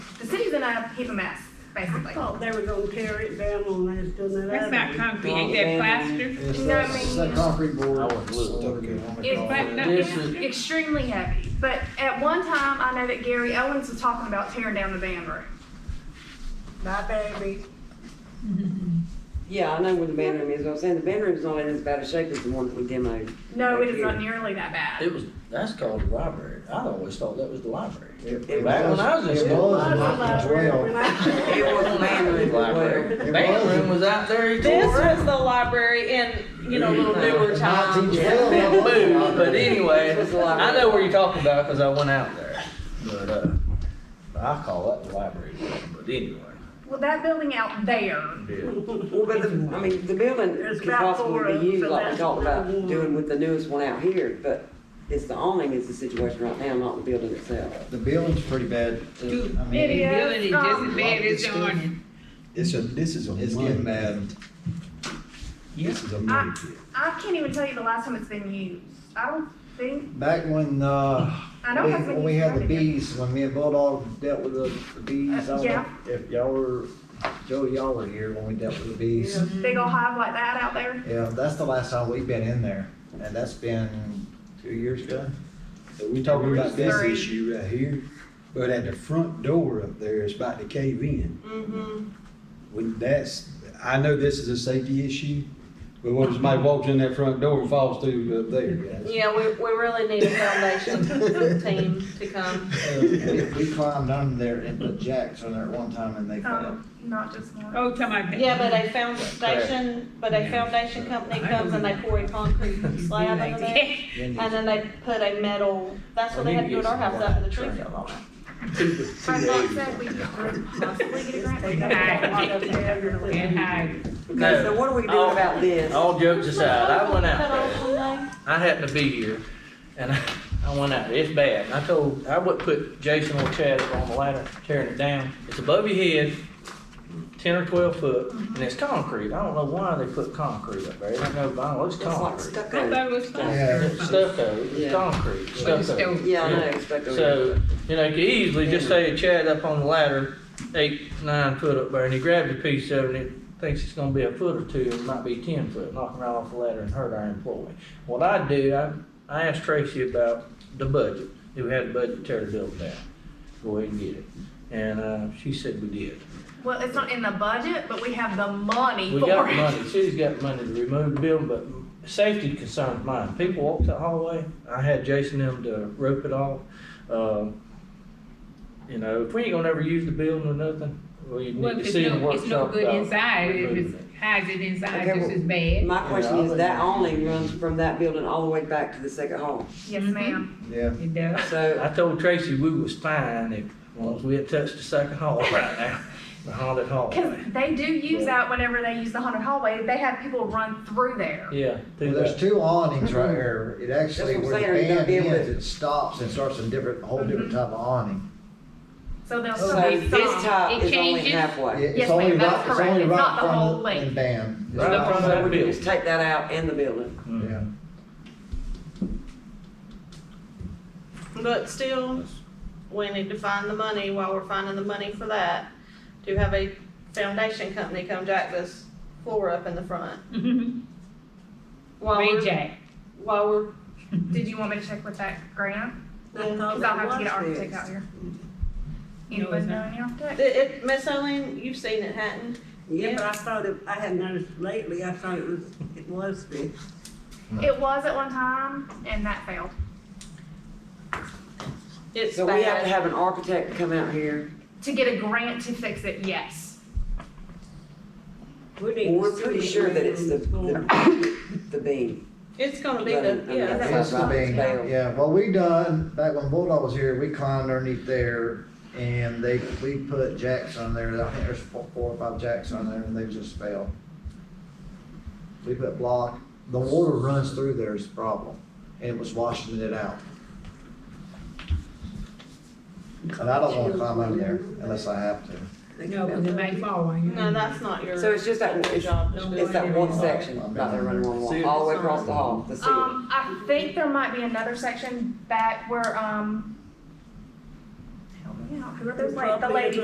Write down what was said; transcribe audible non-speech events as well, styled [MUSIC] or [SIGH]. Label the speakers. Speaker 1: making a paper mask, basically.
Speaker 2: Thought Oh, they were gonna tear it down on us, done that
Speaker 3: That's
Speaker 2: other.
Speaker 3: not concrete, ain't that plaster?
Speaker 4: It's
Speaker 1: No,
Speaker 4: that,
Speaker 1: I mean-
Speaker 4: it's that concrete board.
Speaker 5: I wouldn't look.
Speaker 4: whatever you wanna
Speaker 1: It's
Speaker 4: call
Speaker 3: black-
Speaker 4: it.
Speaker 3: no,
Speaker 5: This
Speaker 3: it's-
Speaker 5: is-
Speaker 1: Extremely heavy. But at one time, I know that Gary Owens was talking about tearing down the band room.
Speaker 2: My baby.
Speaker 6: Yeah, I know where the band room is, I was saying, the band room's not in as bad a shape as the one that we demoed.
Speaker 1: No,
Speaker 6: back
Speaker 1: it is not
Speaker 6: here.
Speaker 1: nearly that bad.
Speaker 5: It was, that's called the library. I always thought that was the library.
Speaker 4: It-
Speaker 6: Back
Speaker 4: it
Speaker 5: when I was in
Speaker 4: It
Speaker 5: school.
Speaker 4: was
Speaker 2: I
Speaker 4: in
Speaker 2: was
Speaker 4: nineteen twelve.
Speaker 6: It was the band room as well.
Speaker 4: It
Speaker 5: Band
Speaker 4: was.
Speaker 5: room was out there. he
Speaker 7: This
Speaker 5: tore it
Speaker 7: was the library in, you know, little newer times.
Speaker 4: 1912, I
Speaker 5: It
Speaker 4: was in
Speaker 5: moved, but
Speaker 4: library.
Speaker 5: anyway,
Speaker 6: This was the library.
Speaker 5: I know where you're talking about because I went out there. But uh, I call that the library. But anyway.
Speaker 1: Well, that building out there,
Speaker 6: Well, but the, I mean, the building
Speaker 2: It's
Speaker 6: could
Speaker 2: about
Speaker 6: possibly
Speaker 2: four,
Speaker 6: be used
Speaker 2: so
Speaker 6: like we
Speaker 2: that's
Speaker 6: talked about
Speaker 2: another one.
Speaker 6: doing with the newest one out here, but it's the awning is the situation right now, not the building itself.
Speaker 4: The building's pretty bad. I mean,
Speaker 1: It is.
Speaker 3: Building is just as bad as
Speaker 4: It's
Speaker 3: on.
Speaker 8: It's a, this is a
Speaker 4: It's
Speaker 8: money
Speaker 4: getting bad.
Speaker 8: pit. This is a
Speaker 1: I,
Speaker 8: money pit.
Speaker 1: I can't even tell you the last time it's been used. I don't think,
Speaker 4: Back when, uh,
Speaker 1: I know
Speaker 4: we-
Speaker 1: it hasn't
Speaker 4: when
Speaker 1: been
Speaker 4: we
Speaker 1: used
Speaker 4: had
Speaker 1: for
Speaker 4: the
Speaker 1: anything.
Speaker 4: bees, when me and Bulldog dealt with the the bees, I
Speaker 1: Uh,
Speaker 4: don't
Speaker 1: yeah.
Speaker 4: know if y'all were, Joe, y'all were here when we dealt with the bees.
Speaker 1: big old hive like that out there.
Speaker 4: Yeah, that's the last time we've been in there, and that's been two years ago.
Speaker 8: So we talking about this
Speaker 1: Sorry.
Speaker 8: issue right here, but at the front door up there, it's about to cave in. When that's, I know this is a safety issue, but what if somebody walks in that front door and falls through up there, guys?
Speaker 7: Yeah, we, we really need a foundation team to come.
Speaker 4: Uh, We we climbed under there and put jacks on there at one time and they fell.
Speaker 1: Um, not just one.
Speaker 3: Oh, talking about.
Speaker 7: Yeah, but a foundation, but a foundation company comes and they pour a
Speaker 3: [LAUGHS]
Speaker 7: concrete slab under there.
Speaker 4: Then
Speaker 7: And then they put a metal, that's what they had to do at our house after the tree fell on it.
Speaker 1: My mom said we could possibly get a grant. but
Speaker 3: Hi.
Speaker 1: that's not what [LAUGHS] they're doing.
Speaker 3: And hide.
Speaker 6: Okay, so what are we doing
Speaker 5: No. Oh.
Speaker 6: about this?
Speaker 5: All jokes aside, I went out there.
Speaker 7: there.
Speaker 5: I happened to be here, and I, I went out there. It's bad. I told I would put Jason or Chad up on the ladder tearing it down. It's above your head, ten or twelve foot, and it's concrete. I don't know why they put concrete up there. I don't know, but I don't know, it's
Speaker 6: It's like
Speaker 5: concrete.
Speaker 3: I
Speaker 6: stucco.
Speaker 3: thought it was
Speaker 4: Yeah.
Speaker 3: plaster.
Speaker 5: It's stucco, it's
Speaker 6: Yeah.
Speaker 5: concrete, stucco.
Speaker 6: Yeah, I know, it's stucco.
Speaker 5: So, you know, you could easily just say Chad up on the ladder, eight, nine foot up there, and he grabbed a piece of it, and he thinks it's gonna be a foot or two, and it might be ten foot, knocking right off the ladder and hurt our employee. What I do, I, I asked Tracy about the budget, do we have the budget to tear the building down? Go ahead and get it. And, uh, she said we did.
Speaker 1: Well, it's not in the budget, but we have the money
Speaker 5: We
Speaker 1: for
Speaker 5: got
Speaker 1: it.
Speaker 5: the money, city's got the money to remove the building, but safety concerns mine. People walk that hallway, I had Jason them to rope it off. Um, You know, if we ain't gonna ever use the building or nothing, we
Speaker 3: Well,
Speaker 5: need
Speaker 3: if
Speaker 5: to
Speaker 3: it's
Speaker 5: see the
Speaker 3: no, it's no
Speaker 5: workshop.
Speaker 3: good
Speaker 5: about
Speaker 3: inside, if
Speaker 5: removing
Speaker 3: it hides it inside,
Speaker 6: Okay,
Speaker 3: just
Speaker 6: well-
Speaker 3: as bad.
Speaker 6: My question
Speaker 4: Yeah, I
Speaker 6: is,
Speaker 4: think-
Speaker 6: that awning runs from that building all the way back to the second hall.
Speaker 1: Yes, ma'am.
Speaker 4: Yeah,
Speaker 3: It does.
Speaker 5: it.
Speaker 6: So,
Speaker 5: I told Tracy we was fine if, once we had touched the second hall right now, the haunted
Speaker 1: Cause
Speaker 5: hallway.
Speaker 1: they do use that whenever they use the haunted hallway. They have people run through there.
Speaker 5: Yeah,
Speaker 4: well,
Speaker 5: through
Speaker 4: there's
Speaker 5: that.
Speaker 4: two awnings right here, it actually,
Speaker 6: That's
Speaker 4: where
Speaker 6: what I'm
Speaker 4: the
Speaker 6: saying, you gotta
Speaker 4: band
Speaker 6: be able
Speaker 4: ends,
Speaker 6: to-
Speaker 4: it stops and starts a different, whole different
Speaker 1: Mhm.
Speaker 4: type of awning.
Speaker 1: So they'll
Speaker 6: so
Speaker 1: still be
Speaker 6: this
Speaker 1: some.
Speaker 6: top
Speaker 3: It
Speaker 6: is only
Speaker 3: changes.
Speaker 4: Yeah,
Speaker 6: halfway.
Speaker 4: It's
Speaker 1: Yes,
Speaker 4: only
Speaker 1: ma'am, that's
Speaker 4: right, it's
Speaker 1: correct.
Speaker 4: only
Speaker 1: It's
Speaker 4: right
Speaker 1: not the whole
Speaker 4: from
Speaker 1: length.
Speaker 4: and band. It's
Speaker 5: Right
Speaker 4: right
Speaker 5: from
Speaker 4: from-
Speaker 6: So
Speaker 5: that
Speaker 6: we
Speaker 5: building.
Speaker 6: just take that out and the building.
Speaker 5: Mm.
Speaker 4: Yeah.
Speaker 7: But still, we need to find the money while we're finding the money for that, to have a foundation company come jack this floor up in the front.
Speaker 3: [LAUGHS]
Speaker 7: While
Speaker 3: Ray
Speaker 7: we're,
Speaker 3: J.
Speaker 7: while we're,
Speaker 1: Did you want me to check with that grant?
Speaker 2: I thought
Speaker 1: Cause I'll have to get
Speaker 2: that
Speaker 1: an
Speaker 2: was
Speaker 1: architect
Speaker 2: fixed.
Speaker 1: out here.
Speaker 3: No,
Speaker 1: Anybody
Speaker 3: it's
Speaker 1: know
Speaker 3: not.
Speaker 1: any architect?
Speaker 7: it, it, Miss Eileen, you've seen it, hadn't?
Speaker 2: Yeah, but I thought it, I had noticed lately, I thought it was, it was fixed.
Speaker 1: It was at one time and that failed.
Speaker 7: It's
Speaker 6: So we have to
Speaker 7: bad.
Speaker 6: have an architect come out here.
Speaker 1: To get a grant to fix it, yes.
Speaker 2: We need
Speaker 6: Well, we're
Speaker 2: to see
Speaker 6: pretty
Speaker 2: it
Speaker 6: sure that
Speaker 2: when
Speaker 6: it's the,
Speaker 2: it's going.
Speaker 6: the, the beam.
Speaker 7: It's gonna be the,
Speaker 6: Running
Speaker 7: yeah.
Speaker 6: under
Speaker 7: that's
Speaker 6: the
Speaker 4: That's
Speaker 7: what
Speaker 4: the
Speaker 6: fence.
Speaker 7: I'm
Speaker 4: beam,
Speaker 7: saying.
Speaker 6: Bale.
Speaker 4: yeah, what we done, back when Bulldog was here, we climbed underneath there, and they, we put jacks on there, I think there's four, four or five jacks on there, and they just fell. We put block, the water runs through there is the problem, and it was washing it out. And I don't wanna climb under there unless I have to.
Speaker 3: No, because it might fall on you.
Speaker 7: No, that's not your.
Speaker 6: So it's just that-
Speaker 7: your job description.
Speaker 6: It's that one section, about there running one wall, all the way across the hall, the ceiling.
Speaker 1: Um, I think there might be another section back where, um, help me out, who are those, like, the lady